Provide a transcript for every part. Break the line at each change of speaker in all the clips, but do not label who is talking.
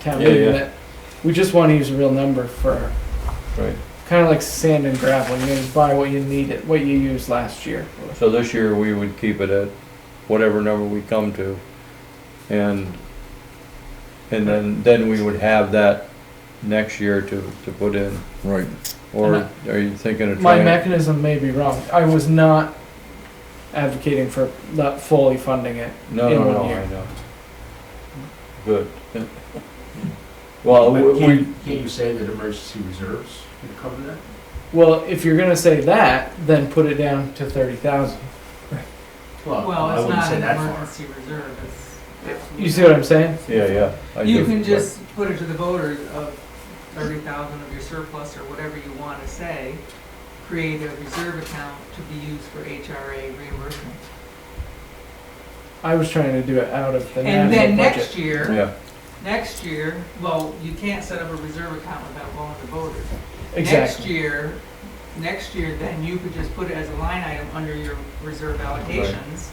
town
Yeah,
meeting
yeah.
that we just want to use a real number for,
Right.
kind of like sand and gravel, you just buy what you need it, what you used last year.
So this year, we would keep it at whatever number we come to. And, and then, then we would have that next year to, to put in.
Right.
And
Or are you thinking of
My
trying?
mechanism may be wrong, I was not advocating for not fully funding it.
No,
in
no,
one
no,
year.
I know. Good. Well,
But
we,
can't,
we-
can't you say that emergency reserves can cover that?
Well, if you're gonna say that, then put it down to thirty thousand.
I
Well, it's
wouldn't
not
say
an
that far.
emergency reserve, it's.
You see what I'm saying?
yeah, yeah. I
You
do,
can
but-
just put it to the voters of thirty thousand of your surplus or whatever you wanna say, create a reserve account to be used for HRA reimbursement.
I was trying to do it out of the
And
national
then
budget.
next year,
Yeah,
next year, well, you can't set up a reserve account without going to voters. Next
Exactly,
year, next year, then you could just put it as a line item under your reserve allocations,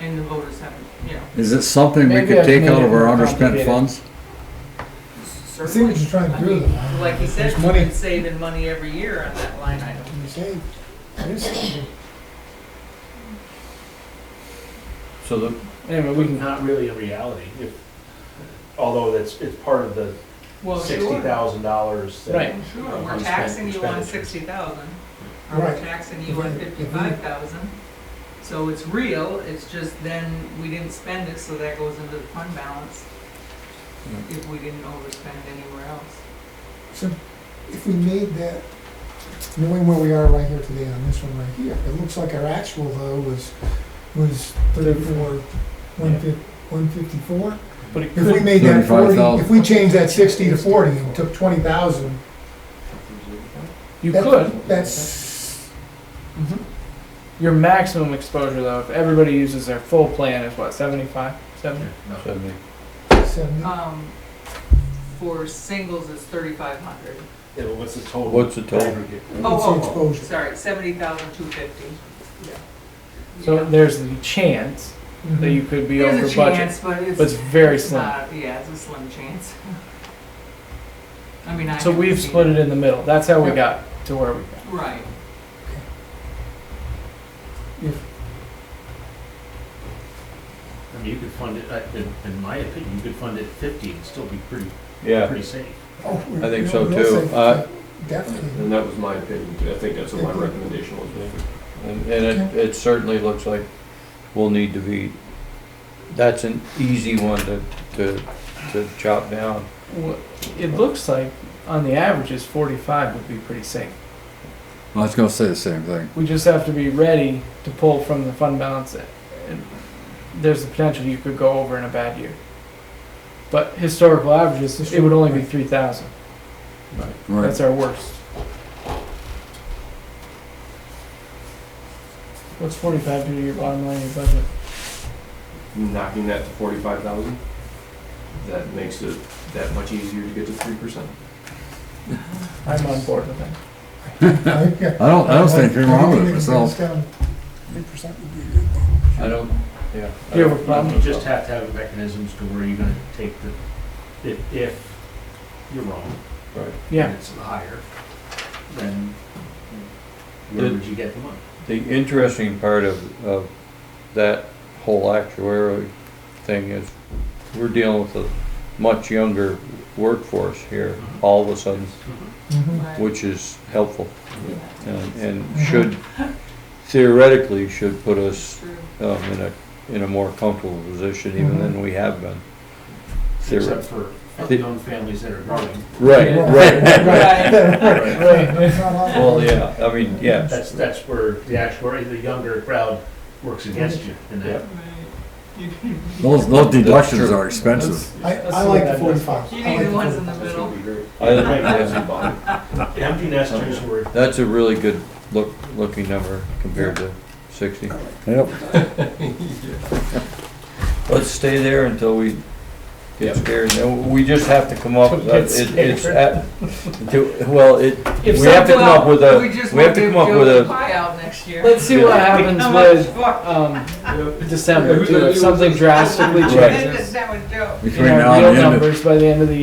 and the voters haven't, you know.
Is it something we
Maybe
could
I've
take
made
out
it
of our
more
underspent
complicated.
funds?
I see what you're trying to do, though.
I mean, Like you said,
There's
we've
money.
been saving money every year on that line item.
You say, this,
so the,
anyway, we can,
Not really a reality, if, although that's, it's part of the
Well,
sixty
sure,
thousand dollars.
Right.
sure, we're taxing you on sixty thousand, or we're
Right.
taxing you on
Mhm.
fifty-five thousand. So it's real, it's just then we didn't spend it, so that goes into the fund balance if we didn't overspend anywhere else.
so if we made that, knowing where we are right here today on this one right here, it looks like our actual though was, was thirty-four, one fif, one fifty-four?
but it
If we
could,
made that forty,
35,000.
if we changed that sixty to forty and took twenty thousand,
you
that-
could.
That's,
Your maximum exposure though, if everybody uses their full plan, is what, 75, 70?
so the-
seventy,
Um, for singles, it's thirty-five hundred. Oh,
Yeah, but what's the total?
What's the total?
Aggregate.
What's the exposure?
Sorry, seventy thousand two fifty.
So there's the chance that you could be over
Mm-hmm. There's a
budget,
chance, but it's.
but it's very
it's
slim.
not- Yeah, it's a slim chance. I mean, I.
So
haven't
we've
seen
split it in the middle, that's how we got to where we got.
Right.
I mean, you could fund it, uh, in, in my opinion, you could fund it fifty and still be pretty,
yeah,
pretty safe.
Oh, we-
I think
no,
so
we'll
too.
say
Uh,
Definitely,
And that was my opinion, too. I think that's what my recommendation was made.
and, and it, it certainly looks like we'll need to be, that's an easy one to, to, to chop down.
Wha- It looks like on the averages, 45 would be pretty safe.
I was gonna say the same thing.
We just have to be ready to pull from the fund balance. And There's the potential you could go over in a bad year. But historical averages, it would only be 3,000.
Right.
That's our worst. What's forty-five do to your bottom line, your budget?
Knocking that to forty-five thousand, that makes it that much easier to get to three percent.
I'm on board with that.
I think, yeah.
I don't, I don't see anything wrong with it
Everything
myself.
that goes down
I don't, yeah. I
Do you
don't-
have a problem?
You
Um,
just have to have mechanisms to where you're gonna take the, if, if you're wrong,
Right.
Yeah,
and it's higher, then where
Did-
would you get the money?
The interesting part of, of that whole actuarial thing is we're dealing with a much younger workforce here all of a sudden, Hmm.
Mhm.
Right.
which is helpful and, and should theoretically should put us
True.
um, in a, in a more comfortable position even than we have been.
Except
Theoret-
for
Theor-
young families that are growing.
Right, right, right.
It's not on-
Well, yeah, I mean, yeah,
That's, that's where the actuary, the younger crowd works against you in that.
Right. You can-
Those, those deductions are expensive.
I, I like the forty-five.
you
I like
need the ones in
45.
the
That's
middle.
gonna be great.
I, yeah.
The Empty nesters were,
That's a really good look, looking number compared to sixty.
Yep.
Let's stay there until we get scared. No, We just have to come up, with uh,
Get
it- it's, at- to- well, it,
If
we have to
something-
come up with
We
a,
just
we have
want
to
to
come up
go
with
the
a,
pie out next year.
let's see what happens
How much
with,
fuck?
um, December, too, if something drastically
Right.
That
changes.
that was dope.
Between
In
now
our
and
real
the end of
numbers by the end of the